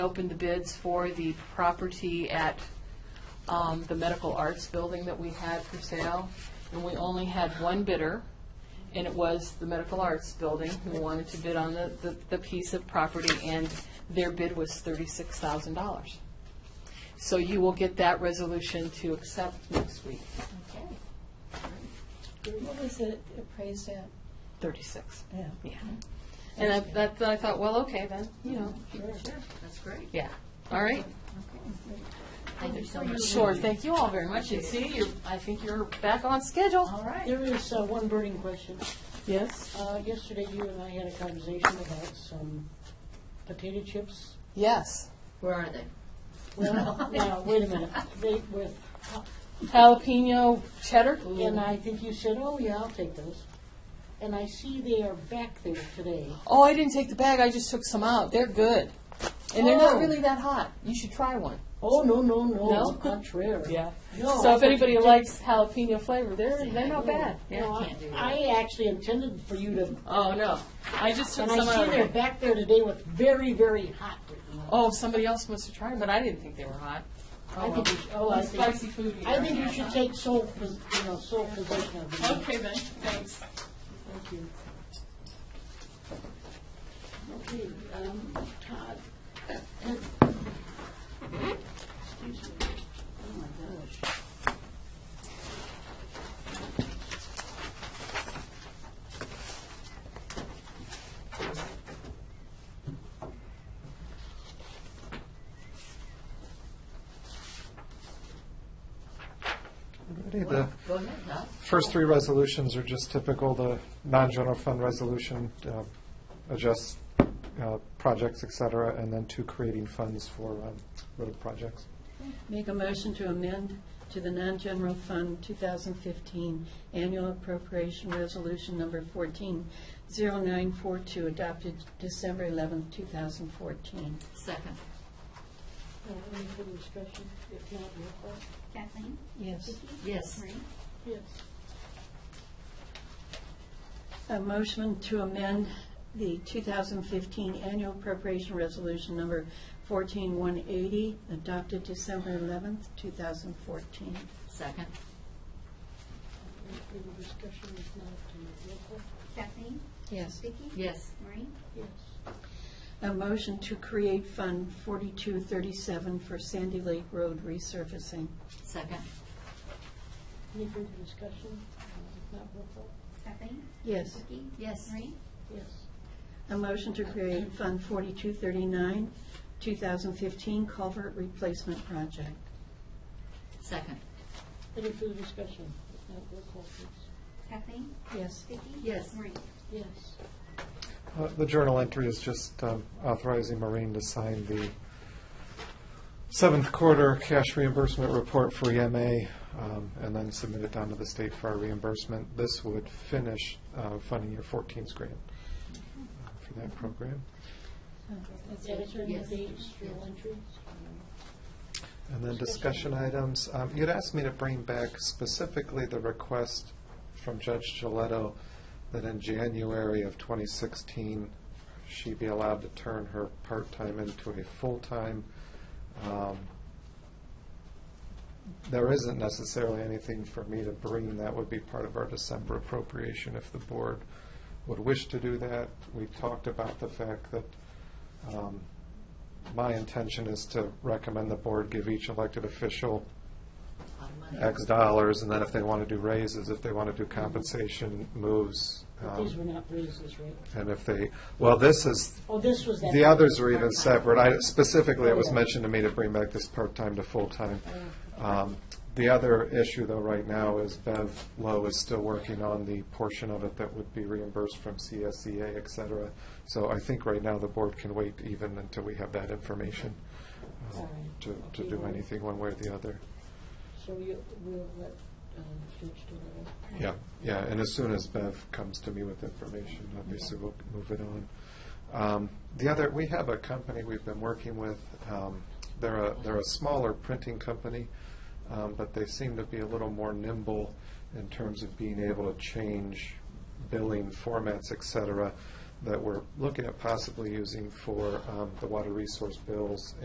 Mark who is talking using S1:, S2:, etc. S1: opened the bids for the property at um, the Medical Arts Building that we had for sale, and we only had one bidder, and it was the Medical Arts Building who wanted to bid on the, the- the piece of property, and their bid was thirty-six thousand dollars. So you will get that resolution to accept next week,
S2: Okay. What was it appraised at?
S1: thirty-six.
S2: Yeah.
S1: Yeah. And I, that, that I thought, well, okay, then, you know,
S2: Sure.
S3: That's great.
S1: yeah, all right.
S3: Thank you so much.
S1: Sure, thank you all very much, and see, you're, I think you're back on schedule.
S3: All right.
S4: There is uh, one burning question.
S1: Yes?
S4: Uh, Yesterday, you and I had a conversation about some potato chips.
S1: Yes.
S3: Where are they?
S4: Well, now, wait a minute. They with,
S1: Jalapeno cheddar?
S4: and I think you said, oh, yeah, I'll take those. And I see they are back there today.
S1: Oh, I didn't take the bag, I just took some out, they're good. And they're not
S4: Oh.
S1: really that hot, you should try one.
S4: Oh, no, no,
S1: No?
S4: no, contrary. No,
S1: So
S4: I
S1: if
S4: thought
S1: anybody
S4: you did-
S1: likes jalapeno flavor, they're, they're not bad.
S4: No, I- I actually intended for you to,
S1: Oh, no, I just took
S4: and
S1: some
S4: I see they're
S1: out.
S4: back there today with very, very hot.
S1: Oh, somebody else must have tried them, but I didn't think they were hot.
S4: I
S1: well.
S4: think, you should- oh, I
S1: Spicy
S4: think,
S1: food.
S4: I think you should take sole, pos- you know, sole possession of these.
S1: Okay then, thanks.
S4: Thank you. Okay, um, Todd. Excuse me. Oh, my gosh.
S5: Alrighty, The
S3: Go ahead, Doc.
S5: first three resolutions are just typical, the non-general fund resolution uh, adjusts uh, projects, et cetera, and then two creating funds for um, road projects.
S6: Make a motion to amend to the non-general fund 2015 annual appropriation resolution number 140942 adopted December 11, 2014.
S3: Second.
S4: Uh, Any further discussion? If not, roll call.
S7: Kathleen?
S6: Yes.
S3: Yes.
S7: Marie?
S4: Yes.
S6: A motion to amend the 2015 annual appropriation resolution number 14180 adopted December 11, 2014.
S3: Second.
S4: Any further discussion? If not, uh, roll call.
S7: Kathleen?
S6: Yes.
S7: Vicki?
S3: Yes.
S7: Marie?
S4: Yes.
S6: A motion to create Fund 4237 for Sandy Lake Road resurfacing.
S3: Second.
S4: Any further discussion? Uh, If not, roll call.
S7: Kathleen?
S6: Yes.
S7: Vicki?
S3: Yes.
S7: Marie?
S4: Yes.
S6: A motion to create Fund 4239, 2015 Culvert Replacement Project.
S3: Second.
S4: Any further discussion? If not, roll call, please.
S7: Kathleen?
S6: Yes.
S7: Vicki?
S3: Yes.
S7: Marie?
S4: Yes.
S5: Uh, The journal entry is just um, authorizing Marine to sign the seventh quarter cash reimbursement report for EMA, um, and then submit it down to the state for our reimbursement. This would finish uh, funding your 14's grant uh, for that program.
S4: Editor,
S3: Yes.
S4: dates, journal entries?
S5: And then discussion items. Um, You'd asked me to bring back specifically the request from Judge Gilletto that in January of 2016, she be allowed to turn her part-time into a full-time. Um, There isn't necessarily anything for me to bring. That would be part of our December appropriation if the board would wish to do that. We talked about the fact that um, my intention is to recommend the board give each elected official
S3: On money.
S5: X dollars, and then if they want to do raises, if they want to do compensation moves,
S4: But
S5: um,
S4: these were not raises, right?
S5: and if they, well, this is,
S4: Oh, this was that.
S5: the others are even separate. I, specifically, it was
S4: Yeah.
S5: mentioned to me to bring back this part-time to full-time.
S4: Oh.
S5: Um, The other issue, though, right now is Bev Lowe is still working on the portion of it that would be reimbursed from CSEA, et cetera. So I think right now the board can wait even until we have that information uh,
S4: All right.
S5: to, to do anything one way or the other.
S4: So you, we'll let um, Judge do that.
S5: Yeah, yeah, and as soon as Bev comes to me with information, obviously we'll move it on. Um, The other, we have a company we've been working with. um, They're a, they're a smaller printing company, um, but they seem to be a little more nimble in terms of being able to change billing formats, et cetera. that we're looking at possibly using for um, the water resource bills